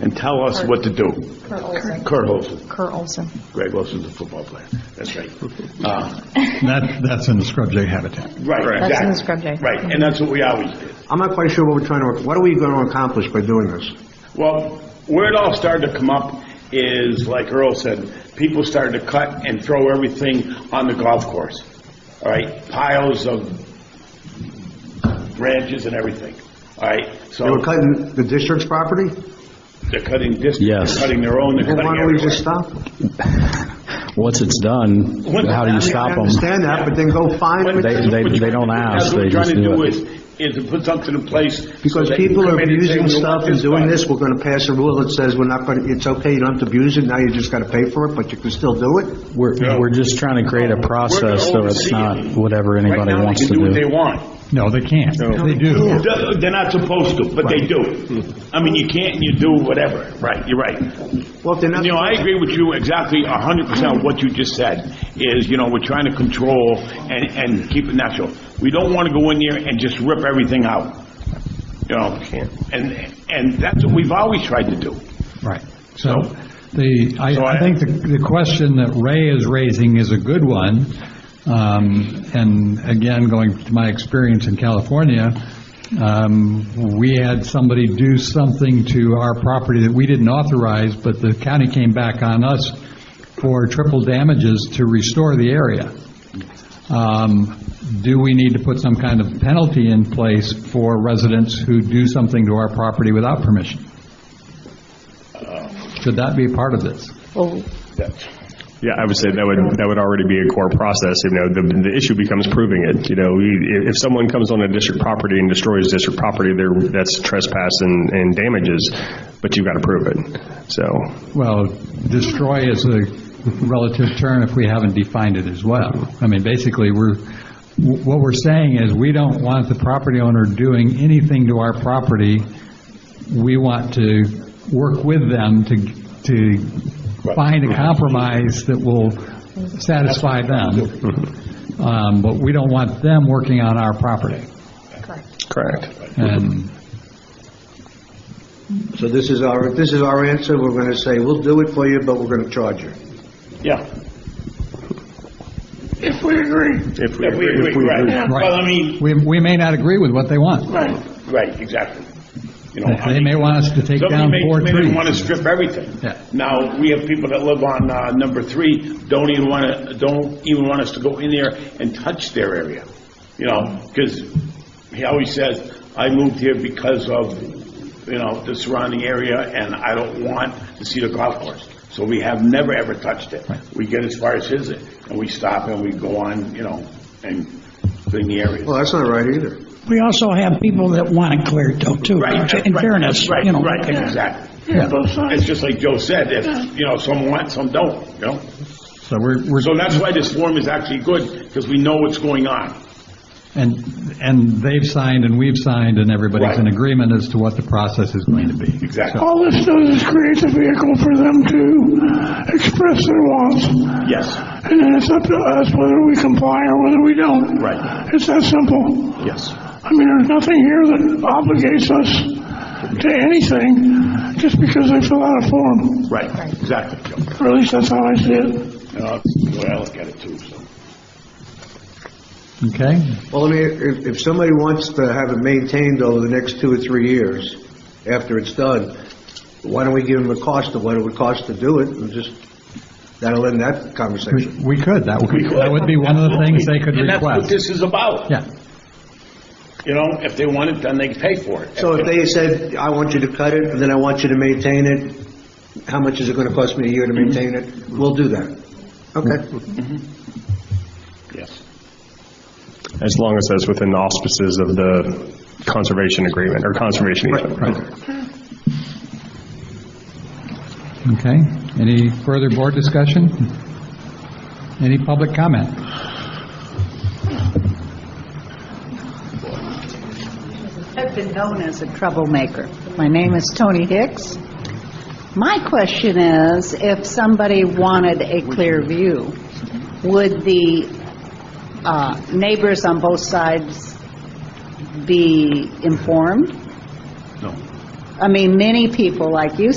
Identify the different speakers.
Speaker 1: and tell us what to do.
Speaker 2: Kurt Olson.
Speaker 1: Kurt Olson,
Speaker 2: Kurt Olson.
Speaker 1: Greg Olson's a football player, that's right. Uh,
Speaker 3: That, that's in the scrub jay habitat.
Speaker 1: Right, exactly.
Speaker 2: That's in the scrub day.
Speaker 1: Right, and that's what we always did.
Speaker 4: I'm not quite sure what we're trying to, what are we going to accomplish by doing this?
Speaker 1: Well, where it all started to come up is, like Earl said, people started to cut and throw everything on the golf course. All right, piles of branches and everything, all right? So
Speaker 4: They were cutting the district's property?
Speaker 1: They're cutting district,
Speaker 5: Yes.
Speaker 1: they're cutting their own, they're
Speaker 4: Well,
Speaker 1: cutting
Speaker 4: why don't we just
Speaker 1: everywhere.
Speaker 4: stop?
Speaker 5: Once it's done, how do you
Speaker 4: I
Speaker 5: stop them?
Speaker 4: understand that, but then go find them.
Speaker 1: But that's
Speaker 5: they-
Speaker 1: what
Speaker 5: they
Speaker 1: you-
Speaker 5: don't ask,
Speaker 1: That's what
Speaker 5: they
Speaker 1: we're trying
Speaker 5: just
Speaker 1: to
Speaker 5: do
Speaker 1: do
Speaker 5: it.
Speaker 1: is, is to put something in place. so
Speaker 4: Because
Speaker 1: that you
Speaker 4: people
Speaker 1: come
Speaker 4: are
Speaker 1: in and say,
Speaker 4: abusing
Speaker 1: "We
Speaker 4: stuff
Speaker 1: want
Speaker 4: and doing
Speaker 1: done."
Speaker 4: this, we're going to pass a rule that says we're not going, to. it's okay, you don't have to abuse it, now you just got to pay for it, but you can still do it?
Speaker 5: We're, we're just trying to create a process, so it's not whatever anybody wants
Speaker 1: Right now, they can
Speaker 5: to do.
Speaker 1: do what they want.
Speaker 3: No, they can't. They do.
Speaker 1: They're they're not supposed to, but they do. I mean, you can't and you do whatever. Right, you're right.
Speaker 4: Well, if they're not,
Speaker 1: You know, I agree with you exactly a hundred percent what you just said, is, you know, we're trying to control and, and keep it natural. We don't want to go in there and just rip everything out, you know? And, and that's what we've always tried to do.
Speaker 3: Right. So the,
Speaker 1: So
Speaker 3: I,
Speaker 1: I-
Speaker 3: I think the, the question that Ray is raising is a good one. Um, and again, going to my experience in California, um, we had somebody do something to our property that we didn't authorize, but the county came back on us for triple damages to restore the area. Um, Do we need to put some kind of penalty in place for residents who do something to our property without permission? Should that be a part of this?
Speaker 2: Well,
Speaker 6: Yeah, I would say that would, that would already be a core process, you know, the, the issue becomes proving it, you know, You- if, if someone comes on a district property and destroys district property, there, that's trespass and, and damages, but you've got to prove it, so,
Speaker 3: Well, destroy is a relative term if we haven't defined it as well. I mean, basically, we're, what we're saying is, we don't want the property owner doing anything to our property. We want to work with them to, to find a compromise that will satisfy them, Um, but we don't want them working on our property.
Speaker 6: correct.
Speaker 3: And
Speaker 4: so this is our, this is our answer, we're going to say, we'll do it for you, but we're going to charge you.
Speaker 1: Yeah. If we agree. If we agree, right.
Speaker 3: Right.
Speaker 1: Well, I mean,
Speaker 3: we, we may not agree with what they want.
Speaker 1: right, right, exactly. You know, I
Speaker 3: They may
Speaker 1: mean,
Speaker 3: want us to take down four
Speaker 1: Somebody may come in and want to
Speaker 3: trees.
Speaker 1: strip everything.
Speaker 3: Yeah.
Speaker 1: Now, we have people that live on uh, number three, don't even want to, don't even want us to go in there and touch their area, you know, because he always says, I moved here because of, you know, the surrounding area, and I don't want to see the golf course. So we have never, ever touched it. We get as far as his, and we stop and we go on, you know, and clean the area.
Speaker 4: Well, that's not right either.
Speaker 7: We also have people that want it cleared, though, too.
Speaker 1: Right.
Speaker 7: In
Speaker 1: right,
Speaker 7: fairness,
Speaker 1: Right,
Speaker 7: you know.
Speaker 1: right, exactly. It's just like Joe said, if, you know, some want, some don't, you know?
Speaker 3: So we're, we're
Speaker 1: So that's why this form is actually good, because we know what's going on.
Speaker 3: And, and they've signed and we've signed and everybody's in
Speaker 1: Right.
Speaker 3: agreement as to what the process is going to be.
Speaker 1: Exactly.
Speaker 7: All this does is creates a vehicle for them to express their wants, and
Speaker 1: Yes,
Speaker 7: then it's up to us whether we comply or whether we don't.
Speaker 1: Right.
Speaker 7: It's that simple.
Speaker 1: yes.
Speaker 7: I mean, there's nothing here that obligates us to anything just because they fill out a form,
Speaker 1: Right, exactly, Joe.
Speaker 7: or at least that's how I see it.
Speaker 1: You know, that's the way Uh, I look at it too, so.
Speaker 3: Okay?
Speaker 4: Well, I mean, if, if somebody wants to have it maintained over the next two or three years, after it's done, why don't we give them the cost of what it would cost to do it, and just, that'll end that
Speaker 3: We
Speaker 4: conversation.
Speaker 3: we could, that would, that would be one of the things they could
Speaker 1: And that's what
Speaker 3: request.
Speaker 1: this is about.
Speaker 3: Yeah,
Speaker 1: You know, if they want it, then they pay for it.
Speaker 4: So if they said, I want you to cut it, and then I want you to maintain it, how much is it gonna cost me a year to maintain it? We'll do that. Okay.
Speaker 1: Yes.
Speaker 6: As long as that's within the auspices of the conservation agreement, or conservation easement.
Speaker 3: okay. Any further board discussion? Any public comment?
Speaker 8: I've been known as a troublemaker. My name is Tony Hicks. My question is, if somebody wanted a clear view, would the uh, neighbors on both sides be informed?
Speaker 1: No.
Speaker 8: I mean, many people, like you